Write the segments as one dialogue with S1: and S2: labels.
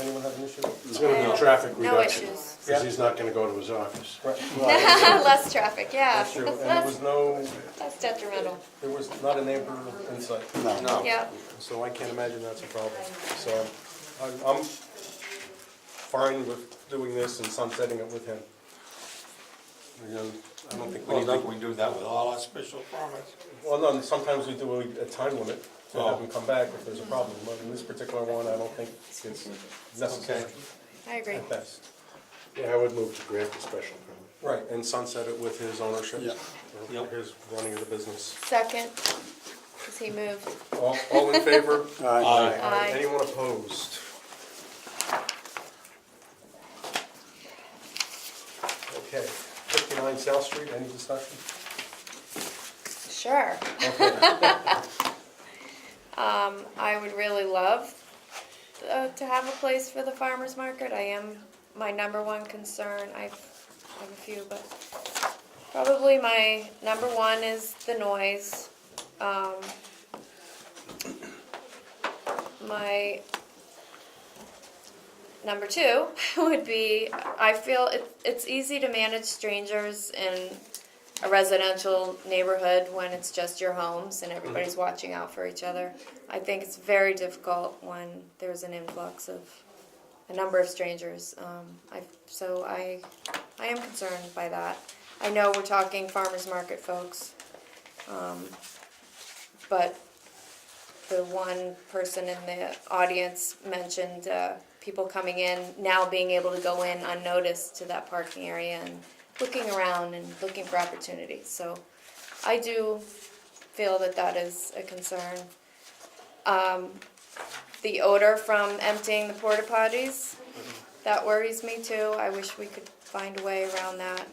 S1: Anyone have an issue?
S2: There's gonna be traffic
S3: No
S2: reduction,
S3: issues.
S1: Yeah.
S2: because he's not gonna go to his office.
S1: Right, well,
S3: Less traffic, yeah.
S1: that's true, and there was no,
S3: That's detrimental,
S1: there was not a neighbor in sight, Oh.
S2: No.
S3: yeah.
S1: so I can't imagine that's a problem. So I'm, I'm fine with doing this and sunsetting it with him. Again, I don't think we
S4: Well,
S1: need to.
S4: don't we do that with all our special permits?
S1: Well, no, sometimes we do a- a time limit to have
S4: Oh.
S1: them come back if there's a problem, but in this particular one, I don't think it's necessary
S4: Okay.
S3: I agree.
S1: at best.
S2: Yeah, I would move to grant the special permit.
S1: Right, and sunset it with his ownership.
S2: Yeah.
S1: Or
S4: Yep.
S1: His running of the business.
S3: Second, because he moved.
S1: All, all in favor?
S4: Aye.
S3: Aye.
S1: Anyone opposed? Okay, fifty-nine South Street, any discussion?
S3: Sure. Um, I would really love uh, to have a place for the farmer's market. I am my number one concern. I've, I have a few, but probably my number one is the noise. Um, my number two would be I feel it, it's easy to manage strangers in a residential neighborhood when it's just your homes and everybody's watching out for each other. I think it's very difficult when there's an influx of a number of strangers. Um, I, so I, I am concerned by that. I know we're talking farmers market folks, um, but the one person in the audience mentioned uh, people coming in now being able to go in unnoticed to that parking area and looking around and looking for opportunities. So I do feel that that is a concern. Um, the odor from emptying the porta potties, that worries me too. I wish we could find a way around that.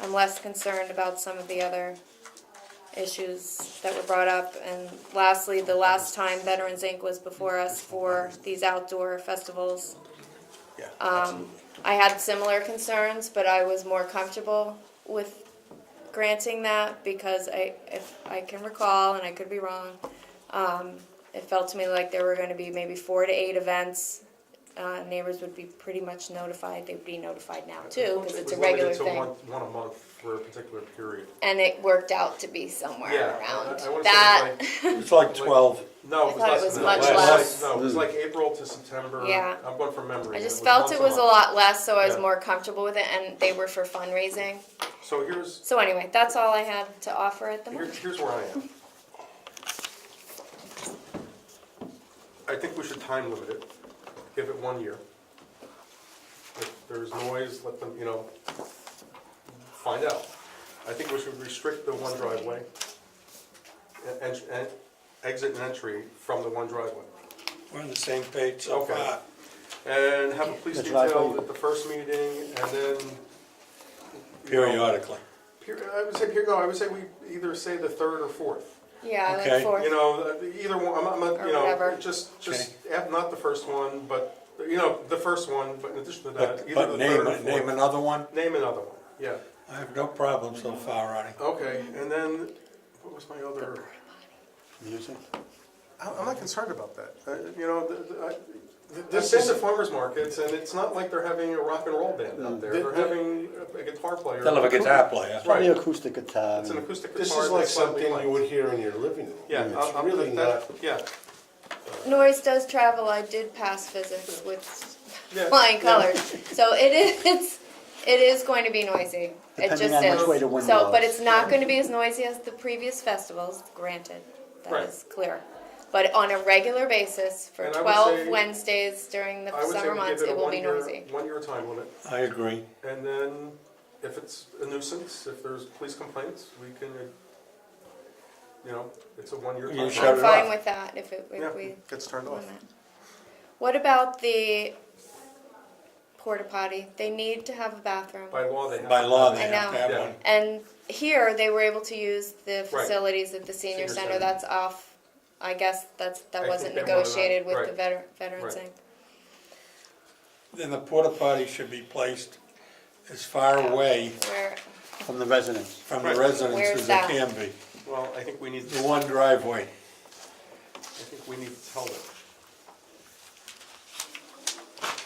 S3: I'm less concerned about some of the other issues that were brought up. And lastly, the last time Veterans Inc. was before us for these outdoor festivals,
S1: Yeah,
S3: um, I had similar concerns, but I was more comfortable with granting that because I, if I can recall, and I could be wrong, um, it felt to me like there were gonna be maybe four to eight events. Uh, neighbors would be pretty much notified, they'd be notified now too, because it's a regular
S1: It was
S3: thing.
S1: limited to one, one a month for a particular period.
S3: And it worked out to be somewhere
S1: Yeah, I-
S3: around
S1: I wanna say
S3: that.
S4: It's like twelve.
S1: No,
S3: I
S1: it was
S3: thought it
S1: less
S3: was
S1: than
S3: much
S1: that. It was
S4: less.
S1: like- No, it was like April to September.
S3: Yeah.
S1: I'm going from memory.
S3: I
S1: and
S3: just felt
S1: months
S3: it
S1: and
S3: was a
S1: months.
S3: lot less, so I was
S1: Yeah.
S3: more comfortable with it, and they were for fundraising.
S1: So here's,
S3: So anyway, that's all I had to offer at the
S1: Here,
S3: moment.
S1: here's where I am. I think we should time limit it, give it one year. If there's noise, let them, you know, find out. I think we should restrict the one driveway, e- en- en- exit and entry from the one driveway.
S4: We're on the same page so
S1: Okay.
S4: far.
S1: And have a police
S2: The driveway.
S1: detail at the first meeting, and then. you know,
S4: Periodically.
S1: peri- I would say, peri- no, I would say we either say the third or fourth.
S3: Yeah, I like
S4: Okay.
S3: fourth.
S1: You know, the- either one, I'm not- I'm not,
S3: Or
S1: you know,
S3: whatever.
S1: just, just, eh, not the first one, but, you know, the first one, but in addition to that,
S4: But,
S1: either
S4: but
S1: the third
S4: name,
S1: or
S4: name
S1: fourth.
S4: another one?
S1: Name another one, yeah.
S4: I have no problem so far, Ronnie.
S1: Okay, and then, what was my other,
S2: Music?
S1: I- I'm not concerned about that. Uh, You know, the- the- I- I've been to farmer's markets, and it's not like they're having a rock and roll band out there. They're having a guitar player.
S4: They'll have a guitar player.
S1: Right.
S5: Probably acoustic guitar.
S1: It's an acoustic guitar.
S2: This is like
S1: that's slightly
S2: something
S1: light.
S2: you would hear in your living room.
S1: Yeah,
S2: It's
S1: I'm,
S2: really
S1: I'm,
S2: not,
S1: that, yeah.
S3: Noise does travel. I did pass physics with
S1: Yeah,
S3: flying
S1: yeah.
S3: colors, so it is. It's, it is going to be noisy. It just is.
S5: Depending on which way the wind
S3: so, but
S5: blows.
S3: it's not going to be as noisy as the previous festivals. Granted, that is
S1: Right.
S3: clear. But on a regular basis, for
S1: And I would
S3: twelve
S1: say-
S3: Wednesdays during the
S1: I would say
S3: summer
S1: we give
S3: months,
S1: it a
S3: it will be
S1: one-year-
S3: noisy.
S1: One-year time limit.
S4: I agree.
S1: And then, if it's a nuisance, if there's police complaints, we can, uh, you know, it's a one-year
S4: You
S1: time.
S4: shut
S3: I'm
S4: it
S3: fine
S4: off.
S3: with that if, it, if
S1: Yeah,
S3: we
S1: gets turned off.
S3: What about the porta potty? They need to have a bathroom.
S1: By law, they have.
S4: By law, they
S3: I
S4: have to
S3: know.
S4: have
S1: Yeah.
S4: one.
S3: And here, they were able to use the facilities at the
S1: Senior
S3: senior center,
S1: center.
S3: that's off, I guess that's,
S1: I
S3: that
S1: think
S3: wasn't
S1: they wanted that,
S3: negotiated with the
S1: right.
S3: veteran, veterans
S1: Right.
S3: thing.
S4: Then the porta potty should be placed as far away
S3: Where,
S5: From the residents.
S4: from
S1: Right.
S4: the residents
S3: Where's
S4: as it
S3: that?
S4: can be.
S1: Well, I think we need,
S4: The
S1: I
S4: one driveway.
S1: think we need to tell them.